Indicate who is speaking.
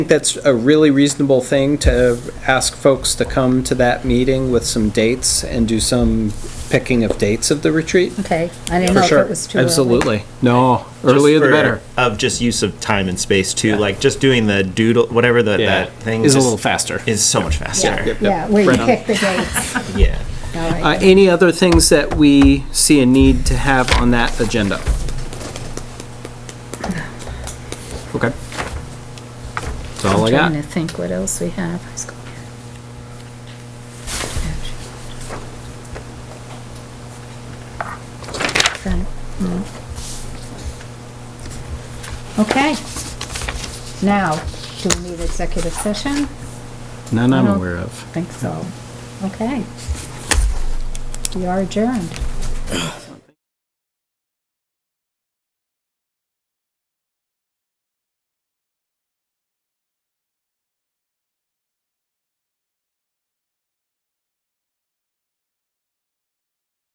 Speaker 1: think that's a really reasonable thing to ask folks to come to that meeting with some dates and do some picking of dates of the retreat.
Speaker 2: Okay, I didn't
Speaker 1: For
Speaker 2: know if
Speaker 1: sure,
Speaker 2: it was too early.
Speaker 1: absolutely. No,
Speaker 3: Just
Speaker 1: earlier the
Speaker 3: for-
Speaker 1: better.
Speaker 3: Of just use of time and space too,
Speaker 1: Yeah.
Speaker 3: like just doing the doodle, whatever the,
Speaker 1: Yeah.
Speaker 3: that thing
Speaker 1: Is a
Speaker 3: just
Speaker 1: little faster.
Speaker 3: Is so much faster.
Speaker 2: Yeah, where
Speaker 1: Right
Speaker 2: you
Speaker 1: on.
Speaker 2: pick the dates.
Speaker 3: Yeah.
Speaker 2: All
Speaker 1: Uh,
Speaker 2: right.
Speaker 1: Any other things that we see a need to have on that agenda? Okay. That's all I
Speaker 2: I'm
Speaker 1: got.
Speaker 2: trying to think what else we have. I was going- Right, no. Okay. Now, do we need executive session?
Speaker 1: None I'm
Speaker 2: I don't-
Speaker 1: aware of.
Speaker 2: Think so. Okay. We are adjourned.